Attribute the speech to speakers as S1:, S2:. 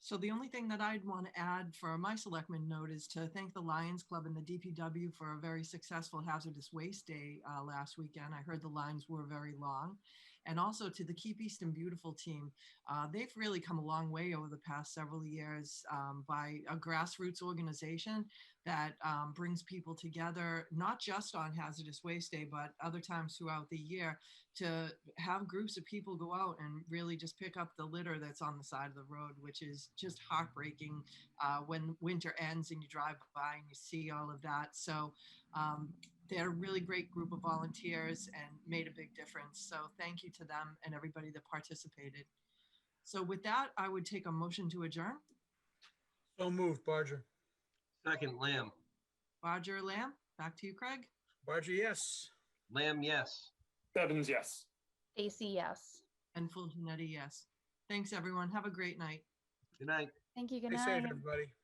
S1: So the only thing that I'd want to add for my selectmen note is to thank the Lions Club and the DPW for a very successful hazardous waste day uh, last weekend. I heard the lines were very long. And also to the Keep Easton Beautiful team. Uh, They've really come a long way over the past several years um, by a grassroots organization that um, brings people together, not just on hazardous waste day, but other times throughout the year to have groups of people go out and really just pick up the litter that's on the side of the road, which is just heartbreaking uh, when winter ends and you drive by and you see all of that. So um, they're a really great group of volunteers and made a big difference. So thank you to them and everybody that participated. So with that, I would take a motion to adjourn.
S2: So moved, Barger.
S3: Second, Lamb.
S1: Roger Lamb, back to you, Craig.
S2: Barger, yes.
S3: Lamb, yes.
S4: Evans, yes.
S5: Stacy, yes.
S1: And Full Janetti, yes. Thanks, everyone. Have a great night.
S3: Good night.
S5: Thank you. Good
S2: Stay safe,
S5: night.
S2: everybody.